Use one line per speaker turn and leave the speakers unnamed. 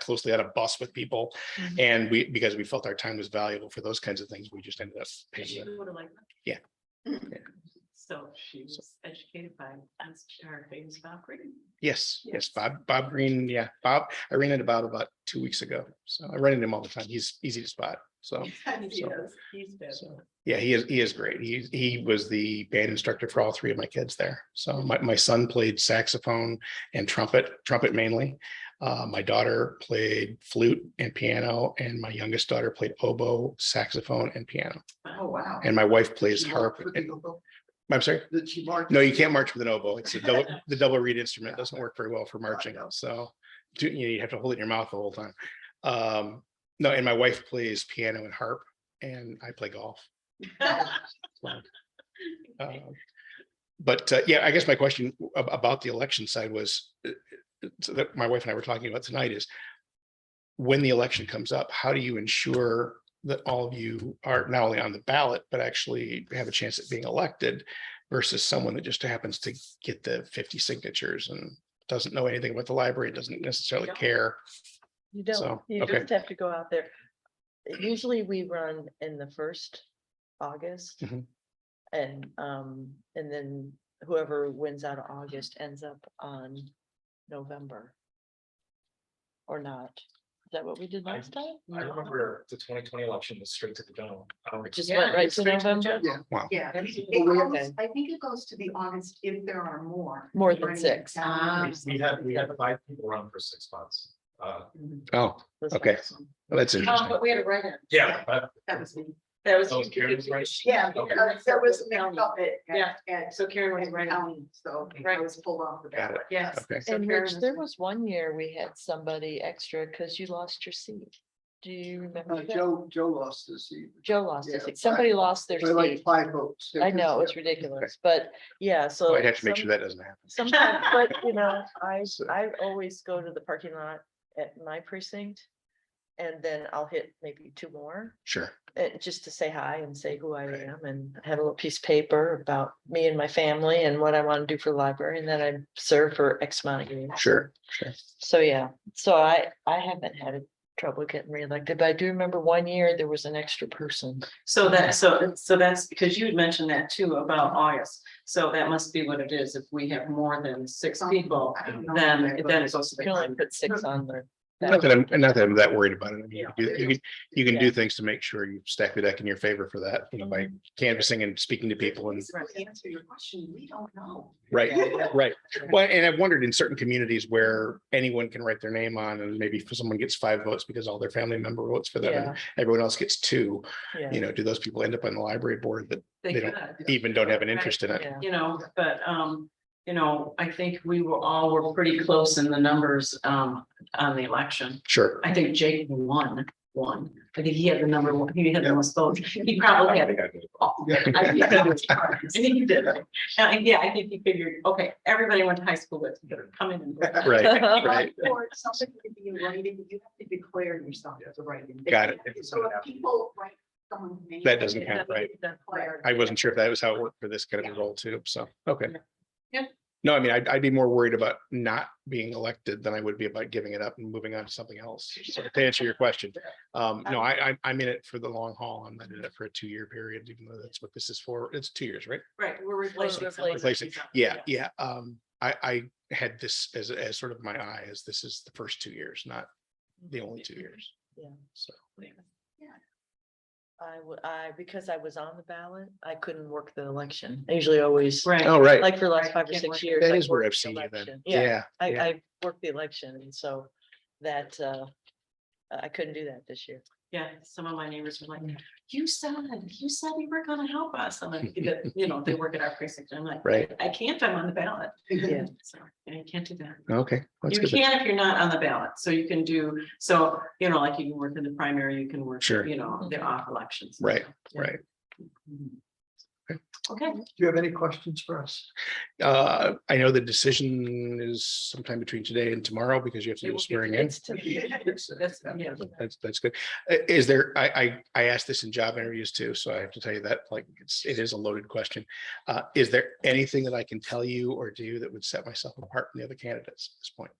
closely on a bus with people.
Mm-hmm.
Mhm.
And we, because we felt our time was valuable for those kinds of things, we just ended up
She
paying. it.
would have liked.
Yeah.
that. So she was educated by, that's our famous Valkyrie.
Yes, yes,
Yes.
Bob, Bob Green, yeah, Bob, I ran into Bob about two weeks ago. So I run into him all the time. He's easy to spot. So,
He
so-
does. He's been.
so, yeah, he is, he is great. He, he was the band instructor for all three of my kids there. So my, my son played saxophone and trumpet, trumpet mainly. Uh, my daughter played flute and piano and my youngest daughter played oboe, saxophone and piano.
Oh, wow.
And my wife plays
She marked
harp.
with
and-
the oboe?
I'm sorry.
Did she mark?
No, you can't march with an oboe. It's a double, the double reed instrument doesn't work very well
Oh,
for marching, so do- you know, you have to hold it in your mouth the whole time. Um, no, and my wife plays piano and harp and I play golf.
Okay.
Um, But uh, yeah, I guess my question ab- about the election side was uh, uh, so that my wife and I were talking about tonight is when the election comes up, how do you ensure that all of you are not only on the ballot, but actually have a chance at being elected versus someone that just happens to get the fifty signatures and doesn't know anything about the library, doesn't necessarily
Yeah.
care.
You
So,
don't, you
okay.
just have to go out there. Usually we run in the first August.
Mhm.
And, um, and then whoever wins out of August ends up on November. Or not. Is that what we did
I-
last time?
I remember the twenty twenty election was straight to the general. Um,
It just
Yeah,
went right
it's
to
straight to the
November?
general.
Wow.
Yeah,
Okay.
it goes- I think it goes to the August if there are more.
More than
Right,
six.
Ah.
exactly.
We we had, we had five people run for six spots. Uh,
Oh,
That's
okay.
right.
well, that's
Um,
interesting.
but we had a write-in.
yeah, but
That was me.
That was.
Oh, Karen was right.
Yeah,
Okay.
because there was a mix up it.
Yeah.
And
So Karen was right.
so I
Right.
was pulled off the
Got it.
ballot.
Yes.
Okay.
So
And
Karen
Rich,
was
there
right.
was one year we had somebody extra because you lost your seat. Do you
Uh,
remember? that?
Uh, Joe, Joe lost his seat,
Joe lost
yeah,
his
right.
seat. Somebody lost their
by like
seat.
five votes.
I know, it's ridiculous, but yeah, so.
I'd have to make
some-
sure that doesn't happen.
Sometimes, but you know, I,
So-
I always go to the parking lot at my precinct. And then I'll hit maybe two more,
Sure.
uh, just to say hi and say who I
Right.
am and have a little piece of paper about me and my family and what I want to do for the library. And then I serve for X amount of years.
Sure, sure.
So, yeah, so I, I haven't had a trouble getting reelected, but I do remember one year there was an extra person.
So that, so, so that's because you had mentioned that too about August. So that must be what it is. If we have more than six people,
I don't know.
then, then it's
You can only put six on there.
Not that I'm, not that I'm that worried about it. I mean,
Yeah.
you can do- you can, you can do
Yeah. Mm-hmm.
things to make sure you stack the deck in your favor for that, you know, by canvassing and speaking to people and,
To Answer your question, we don't know.
right,
Yeah.
right. Well, and I've wondered in certain communities where anyone can write their name on and maybe if someone gets five votes because all their family member votes for them
Yeah,
and everyone else gets two,
yeah.
you know, do those people end up on the library board that
They
They don't-
could.
even don't have an interest in it?
Yeah.
you know, but, um, you know, I think we were all, were pretty close in the numbers, um, on the election.
Sure.
I think Jake won, won. I think he had the number one, he had the most votes. He probably had. all. I think he was- I think he did. And I- yeah, I think he figured, okay, everybody went to high school with, better come in and. vote.
Right, right.
Or something could be in writing, you have to declare yourself as a writing.
Got it.
So if people write someone's name.
That doesn't count, right?
Declare.
I wasn't sure if that was how it worked for this kind of a role too, so, okay.
Yeah.
No, I mean, I'd, I'd be more worried about not being elected than I would be about giving it up and moving on to something else. So to answer your question, um, no, I, I, I'm in it for the long haul. I'm in it for a two-year period, even though that's what this is for. It's two years, right?
Right, we're replacing.
Replacing.
Replacing, yeah, yeah. Um, I, I had this as, as sort of my eye as this is the first two years, not the only two years.
Yeah.
So,
I, w- I, because I was on the ballot, I couldn't work the election. I usually always,
Oh, Right,
all right,
like for the last
Right,
five or
can't work
six
it.
years.
that
I
is where
worked
I've
the
seen you then.
election. Yeah,
Yeah.
I,
yeah.
I worked the election and so that, uh, I couldn't do that this year.
yeah, some of my neighbors were like, you said, you said you were gonna help us, and I'm like, you know, they work at our precinct, I'm like,
Right,
I can't, I'm on the ballot.
Yeah.
So, and you can't do that.
okay. that's
You
good.
can if you're not on the ballot, so you can do, so, you know, like you can work in the primary, you can work,
Sure.
you know, the off elections. Mm-hmm.
Right, right.
Okay,
Do you have any questions for us?
Uh, I know the decision is sometime between today and tomorrow because you have to
It
do
will
the
be
swearing in.
It's to
that's, yeah,
That's, that's good. I- Is there, I, I, I asked this in job interviews too, so I have to tell you that, like, it's, it is a loaded question. Uh, is there anything that I can tell you or do that would set myself apart from the other candidates at this point?